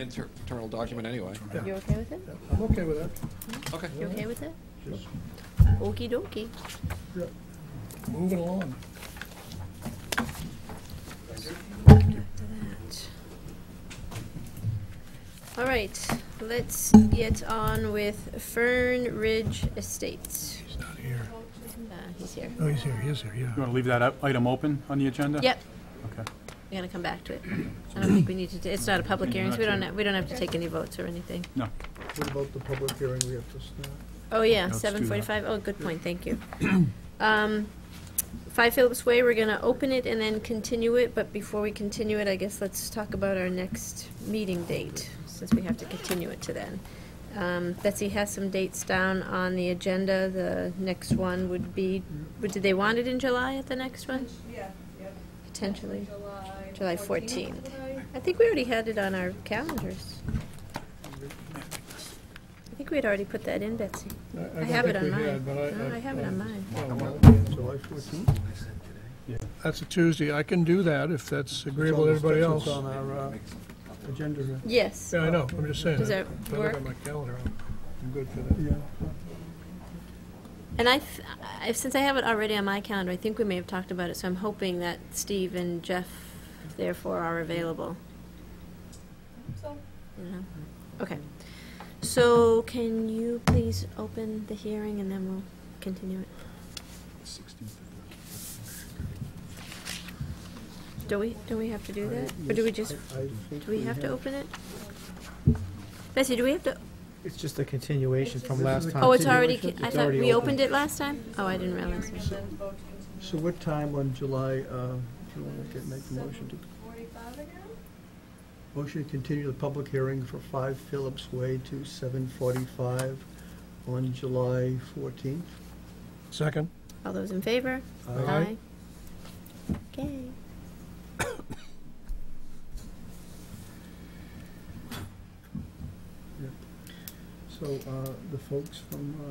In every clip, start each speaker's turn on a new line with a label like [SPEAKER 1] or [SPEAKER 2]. [SPEAKER 1] Inter- Internal document anyway.
[SPEAKER 2] You okay with it?
[SPEAKER 3] I'm okay with that.
[SPEAKER 1] Okay.
[SPEAKER 2] You okay with it?
[SPEAKER 3] Just,
[SPEAKER 2] Okey dokey.
[SPEAKER 3] yeah, moving along.
[SPEAKER 2] All right, let's get on with Fern Ridge Estates.
[SPEAKER 3] He's not here.
[SPEAKER 2] Uh, he's here.
[SPEAKER 3] Oh, he's here, he is here,
[SPEAKER 4] You
[SPEAKER 3] yeah.
[SPEAKER 4] want to leave that i- item open on the agenda?
[SPEAKER 2] Yep,
[SPEAKER 4] Okay.
[SPEAKER 2] we're gonna come back to it. I don't think we need to, do- it's not a public hearing, so we don't, have- we don't have to take any votes or anything.
[SPEAKER 4] No.
[SPEAKER 3] What about the public hearing we have to start?
[SPEAKER 2] Oh, yeah,
[SPEAKER 4] Let's do that.
[SPEAKER 2] seven forty-five. Oh, good point, thank you. Um, Five Phillips Way, we're gonna open it and then continue it, but before we continue it, I guess let's talk about our next meeting date, since we have to continue it to then. Um, Betsy has some dates down on the agenda. The next one would be, would, did they want it in July at the next one?
[SPEAKER 5] Yeah, yep.
[SPEAKER 2] Potentially.
[SPEAKER 5] July.
[SPEAKER 2] July 14th. I think we already had it on our calendars. I think we had already put that in, Betsy. I have it on mine. No, I have it on mine.
[SPEAKER 3] That's a Tuesday, I can do that if that's agreeable to everybody else.
[SPEAKER 6] on our uh, agenda. here.
[SPEAKER 2] Yes.
[SPEAKER 3] Yeah, I know, I'm just saying.
[SPEAKER 2] Does that
[SPEAKER 3] If I look
[SPEAKER 2] work?
[SPEAKER 3] at my calendar, I'm I'm good for that.
[SPEAKER 2] And I, th- I, since I have it already on my calendar, I think we may have talked about it, so I'm hoping that Steve and Jeff therefore are available.
[SPEAKER 5] So,
[SPEAKER 2] you know? Okay. So can you please open the hearing and then we'll continue it? Do we, do we have to do that? Or do we just, do we have to open it? Bessie, do we have to,
[SPEAKER 6] It's just a continuation from last time.
[SPEAKER 2] oh, it's already,
[SPEAKER 3] Continuation?
[SPEAKER 2] I
[SPEAKER 6] It's
[SPEAKER 2] thought
[SPEAKER 6] already
[SPEAKER 2] we
[SPEAKER 6] open.
[SPEAKER 2] opened it last time? Oh, I didn't
[SPEAKER 5] hearing and
[SPEAKER 2] realize.
[SPEAKER 5] then voting
[SPEAKER 6] So what time on July, uh, do you want to get, make the motion to,
[SPEAKER 5] forty-five again?
[SPEAKER 6] motion to continue the public hearing for 5 Phillips Way to 7:45 on July 14th?
[SPEAKER 3] Second?
[SPEAKER 2] All those in favor?
[SPEAKER 3] Aye.
[SPEAKER 2] Okay.
[SPEAKER 6] So uh, the folks from uh,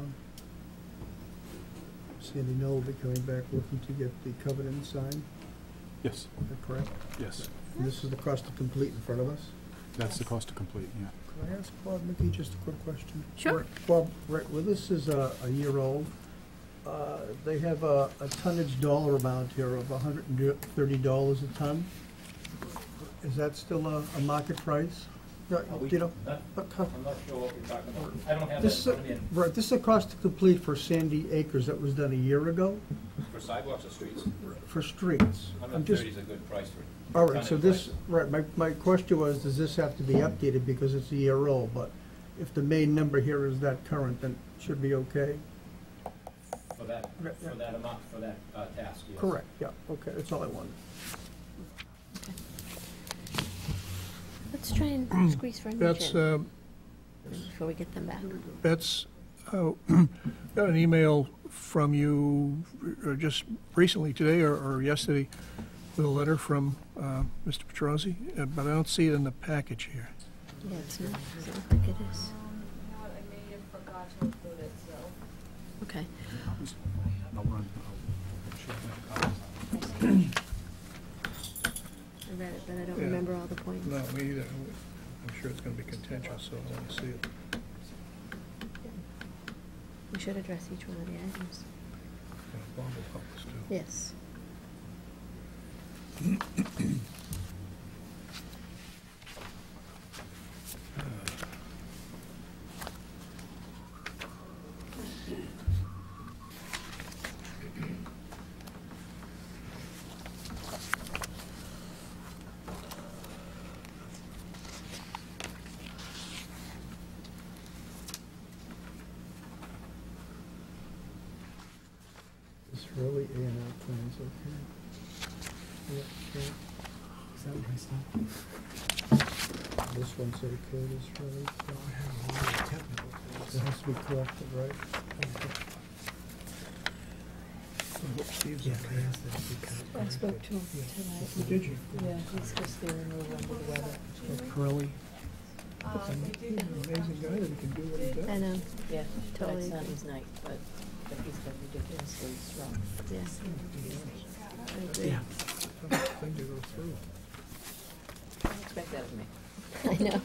[SPEAKER 6] Sandy Knoll will be coming back looking to get the covenant signed, is
[SPEAKER 4] Yes,
[SPEAKER 6] that correct?
[SPEAKER 4] yes.
[SPEAKER 6] And this is the cost to complete in front of us?
[SPEAKER 4] That's the cost to complete, yeah.
[SPEAKER 6] Can I ask Bob Mickey just a quick question?
[SPEAKER 2] Sure.
[SPEAKER 6] Bob, right, well, this is a, a year old. Uh, They have a, a tonnage dollar amount here of hundred and thirty dollars a ton. Is that still a, a market price? No,
[SPEAKER 7] we-
[SPEAKER 6] you know,
[SPEAKER 7] Huh?
[SPEAKER 6] what co-
[SPEAKER 7] I'm not sure what we're talking about. I don't have that in
[SPEAKER 6] this, is
[SPEAKER 7] front of me.
[SPEAKER 6] a- right, this is a cost to complete for Sandy Acres that was done a year ago
[SPEAKER 7] For sidewalks or streets,
[SPEAKER 6] for streets. I'm just
[SPEAKER 7] 130 is a good price for it.
[SPEAKER 6] All right, so
[SPEAKER 7] Kind of
[SPEAKER 6] this, right, my, my question was, does this have to be updated because it's a year old? But if the main number here is that current, then it should be okay?
[SPEAKER 7] For that,
[SPEAKER 6] Yeah, yeah.
[SPEAKER 7] for that amount, for that uh, task, yes.
[SPEAKER 6] Correct, yeah, okay, that's all I wanted.
[SPEAKER 2] Let's try and squeeze for a
[SPEAKER 3] Mm. That's,
[SPEAKER 2] minute
[SPEAKER 3] um,
[SPEAKER 2] before we get them back.
[SPEAKER 3] That's, oh, got an email from you uh, just recently today or- or yesterday with a letter from uh, Mr. Petrosi, uh, but I don't see it in the package here.
[SPEAKER 2] Yeah, it's not, doesn't look like it is.
[SPEAKER 5] Um, You know what, I may have forgot to include it, so.
[SPEAKER 2] Okay. I read it, but I don't
[SPEAKER 3] Yeah.
[SPEAKER 2] remember all the points.
[SPEAKER 3] No, me either. I'm sure it's going to be contentious, so I want to see it.
[SPEAKER 2] We should address each one of the items. Yes.
[SPEAKER 6] It's really A and R plans, okay? Yeah, okay. Is that my stuff? This one's okay, this really. It has to be corrected, right?
[SPEAKER 8] I spoke to him tonight.
[SPEAKER 6] Did you?
[SPEAKER 8] Yeah, he's just there in the room with the weather.
[SPEAKER 6] Curly.
[SPEAKER 5] Um, we did do
[SPEAKER 3] Amazing guy that he can do what he does.
[SPEAKER 2] I know,
[SPEAKER 8] Yeah, totally.
[SPEAKER 2] Totally
[SPEAKER 8] That's not
[SPEAKER 2] agree.
[SPEAKER 8] his night, but, but he's got ridiculously strong.
[SPEAKER 2] yes. I agree.
[SPEAKER 3] Tough Thing to go through.
[SPEAKER 8] Don't expect that of me.
[SPEAKER 2] I know.